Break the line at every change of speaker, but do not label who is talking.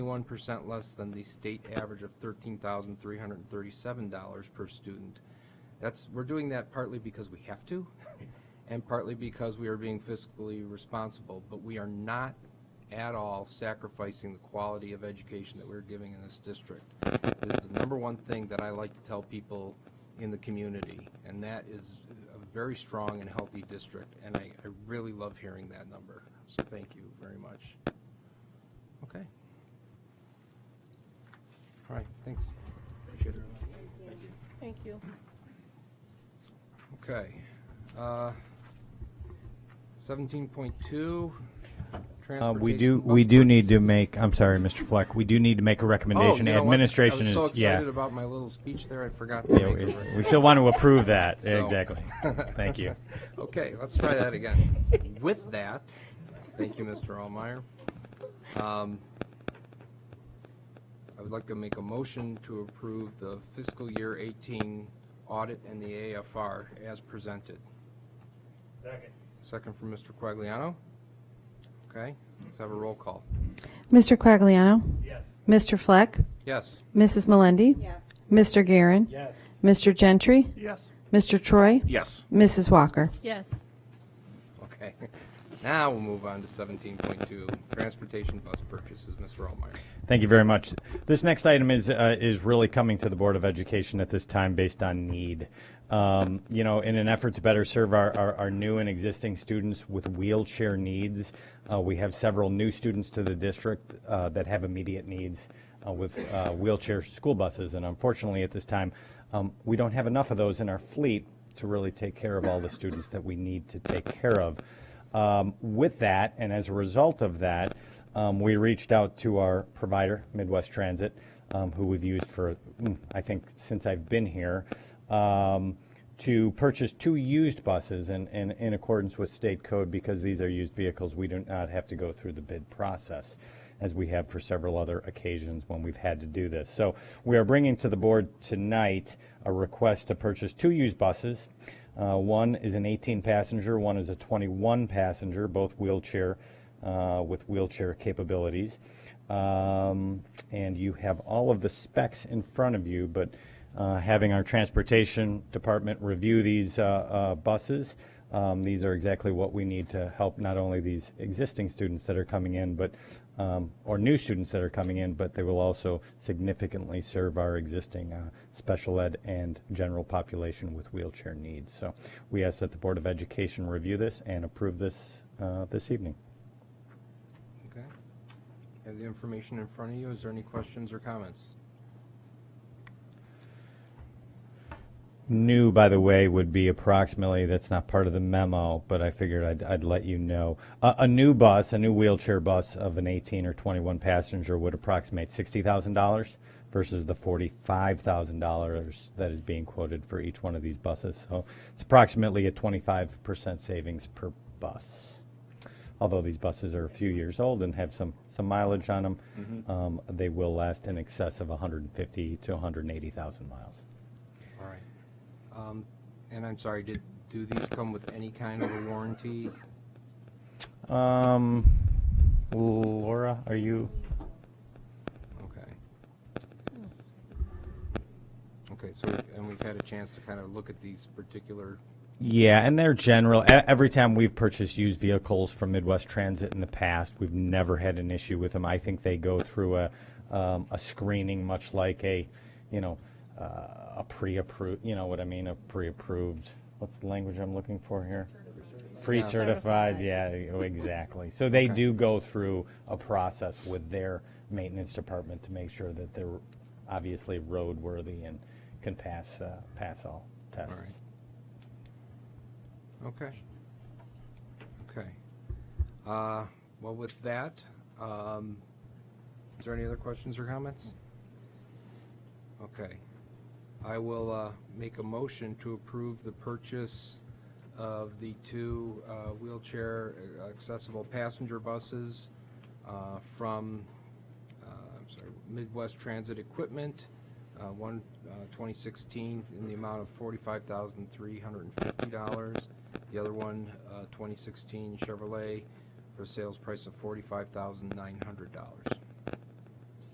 One percent less than the state average of thirteen thousand three hundred and thirty-seven dollars per student. That's, we're doing that partly because we have to, and partly because we are being fiscally responsible, but we are not at all sacrificing the quality of education that we're giving in this district. This is the number one thing that I like to tell people in the community, and that is a very strong and healthy district, and I, I really love hearing that number, so thank you very much. Okay. All right, thanks. Appreciate it.
Thank you.
Okay. uh, Seventeen point two.
Uh, we do, we do need to make, I'm sorry, Mr. Fleck, we do need to make a
Oh,
recommendation. Administration
I was
is,
so excited
yeah.
about my little speech there, I forgot to
Yeah,
make
we-
it.
We still want to approve that,
So-
exactly. Thank you.
Okay, let's try that again. With that, thank you, Mr. Allmeyer. Um, I would like to make a motion to approve the fiscal year 18 audit and the AFR as presented. Second. Second from Mr. Quagliano. Okay, let's have a roll call.
Mr. Quagliano? Yes. Mr. Fleck?
Yes,
Mrs. Melendi?
Yes.
Mr. Garin,
Yes.
Mr. Gentry?
Yes.
Mr. Troy?
Yes.
Mrs. Walker?
Yes.
okay. Now we'll move on to 17.2, transportation bus purchases, Mr. Allmeyer.
Thank you very much. This next item is, uh, is really coming to the Board of Education at this time based on need. Um, you know, in an effort to better serve our, our, our new and existing students with wheelchair needs, uh, we have several new students to the district, uh, that have immediate needs, uh, with, uh, wheelchair school buses. And unfortunately, at this time, um, we don't have enough of those in our fleet to really take care of all the students that we need to take care of. Um, with that, and as a result of that, um, we reached out to our provider, Midwest Transit, um, who we've used for, mm, I think, since I've been here, um, to purchase two used buses in, in, in accordance with state code because these are used vehicles. We do not have to go through the bid process as we have for several other occasions when we've had to do this. So we are bringing to the board tonight a request to purchase two used buses. Uh, one is an 18 passenger, one is a 21 passenger, both wheelchair uh, with wheelchair capabilities. Um, and you have all of the specs in front of you, but uh, having our transportation department review these uh, uh, buses, um, these are exactly what we need to help not only these existing students that are coming in, but um, or new students that are coming in, but they will also significantly serve our existing uh, special ed and general population with wheelchair needs. So we ask that the Board of Education review this and approve this uh, this evening.
Okay. Have the information in front of you. Is there any questions or comments?
New, by the way, would be approximately, that's not part of the memo, but I figured I'd, I'd let you know. A, a new bus, a new wheelchair bus of an 18 or 21 passenger would approximate $60,000 versus the $45,000 that is being quoted for each one of these buses. So it's approximately a 25% savings per bus. Although these buses are a few years old and have some, some mileage on them, um, they will last in excess of 150 to 180,000 miles.
All right. Um, And I'm sorry, did, do these come with any kind of a warranty?
Um, Laura, are you?
Okay. Okay, so, we've- and we've had a chance to kind of look at these particular,
Yeah, and they're general. e- Every time we've purchased used vehicles from Midwest Transit in the past, we've never had an issue with them. I think they go through a um, a screening, much like a, you know, uh, a pre-approved. You know what I mean? A pre-approved. What's the language I'm looking for here? Pre-certifies.
Certified.
Yeah, exactly. So they
Okay.
do go through a process with their maintenance department to make sure that they're obviously roadworthy and can pass uh, pass all tests.
right. okay. Okay. Uh, Well, with that, um, is there any other questions or comments? Okay. I will uh, make a motion to approve the purchase of the two uh, wheelchair uh, accessible passenger buses uh, from, uh, I'm sorry, Midwest Transit Equipment, uh, one, uh, 2016, in the amount of $45,350. The other one, uh, 2016 Chevrolet, for a sales price of $45,900.